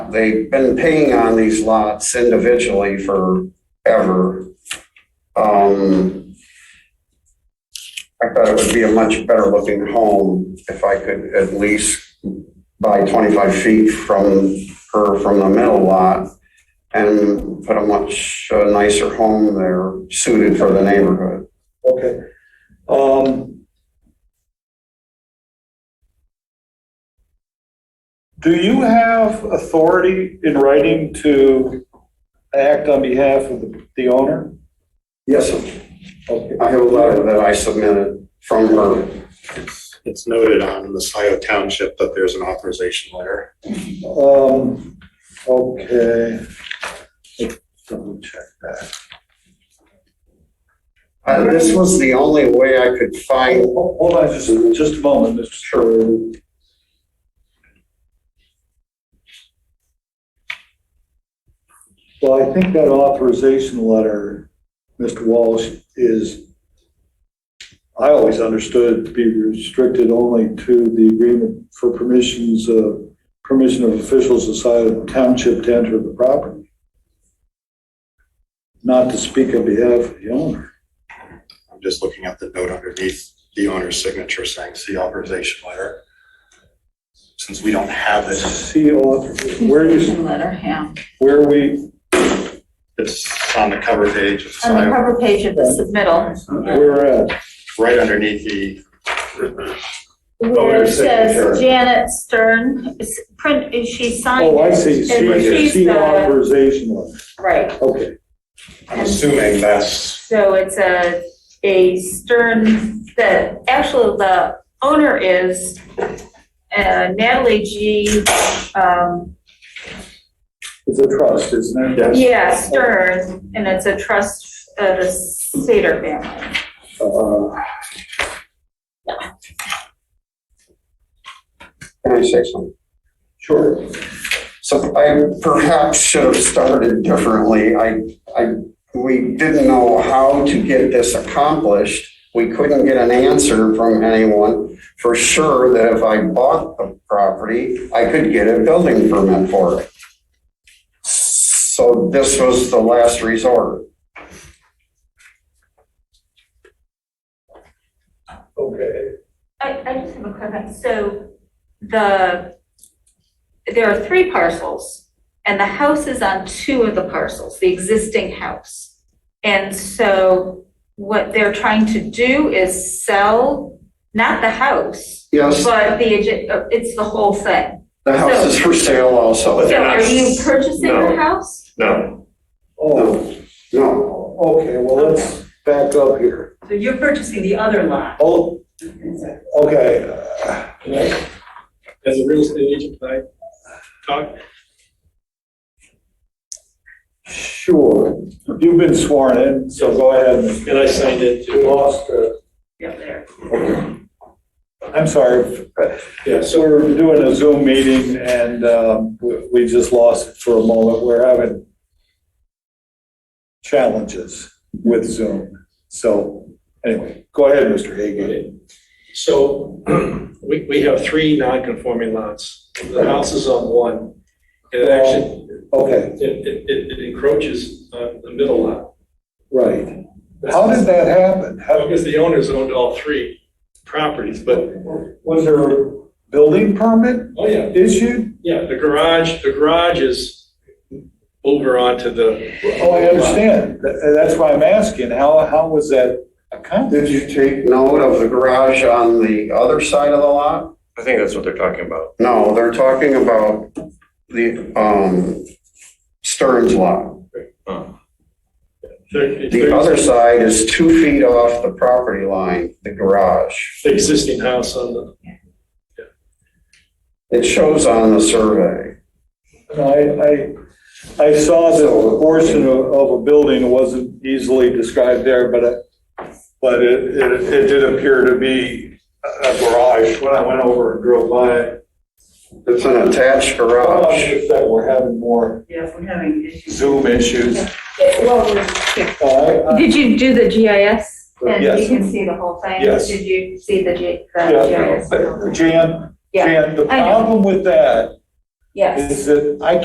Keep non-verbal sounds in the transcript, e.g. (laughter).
They've been paying on these lots individually forever. Um, I thought it would be a much better looking home if I could at least buy 25 feet from her from the middle lot and put a much uh, nicer home there suited for the neighborhood. Okay. Um, Do you have authority in writing to act on behalf of the- the owner? Yes, sir. Okay. I have a letter that I submitted from her. It's noted on the Scioto Township that there's an authorization letter. Um, okay. Let's Double check that. Uh, This was the only way I could find Hold hold on just, just a moment, Mr. Sherwood. Well, I think that authorization letter, Mr. Walsh, is, I always understood to be restricted only to the agreement for permissions, uh, permission of officials aside of the township to enter the property. Not to speak on behalf of the owner. I'm just looking at the note underneath the owner's signature saying, see authorization letter. Since we don't have it, See, author- where is? Letter, yeah. where we, it's on the cover page of On the Scioto, cover page of the submittal, we're at. right underneath the, where Oh, your it signature. says Janet Stern, it's print, she signed Oh, I it. see, And see, she's see the, authorization letter, right, okay. I'm assuming that's, so it's a, a Stern, the, actually, the owner is uh, Natalie G., um, It's a trust, isn't it? yeah, Stern, and it's a trust of the Sater family. Uh, Can I say something? Sure. So I perhaps should have started differently. I, I, we didn't know how to get this accomplished. We couldn't get an answer from anyone for sure that if I bought the property, I could get a building permit for it. So this was the last resort. Okay. I, I just have a question. So the, there are three parcels and the house is on two of the parcels, the existing house. And so what they're trying to do is sell, not the house, Yes, but the, adj- uh, it's the whole thing. the house is for sale also. So are you purchasing the No. house? No, Oh, No, okay, well, let's back up here. So you're purchasing the other lot. Oh, okay. As a real estate agent, can I talk? Sure, you've been sworn in, so go ahead. And I signed it You too. lost, uh, Yep, there. I'm sorry. Yeah, So we're doing a Zoom meeting and um, we- we just lost it for a moment. We're having challenges with Zoom. So anyway, go ahead, Mr. Hagan. So (clears throat) we, we have three non-conforming lots. The house is on one. And it actually, Okay, it, it- it, it encroaches on the middle lot. right. How did that happen? Well, How- Because the owners owned all three properties, but, Was there a building permit oh yeah, issued? yeah, the garage, the garage is over onto the, Oh, I understand. Tha- That's why I'm asking. How, how was that accomplished? Did you take note of the garage on the other side of the lot? I think that's what they're talking about. No, they're talking about the, um, Stearns lot. the- The other side is two feet off the property line, the garage. the existing house on the, It shows on the survey. I, I, I saw the portion of, of a building, it wasn't easily described there, but, it- but it, it, it did appear to be a a garage when I went over and drove by it. It's an attached I don't know garage. if that we're having more Yes, we're having issues. Zoom issues. Uh, I- I- Did you do the GIS? And Yes. you can see the whole thing? Yes. Did you see the G, yeah, the GIS? but Jan, Yeah, Jan, the I know. problem with that Yes. is that I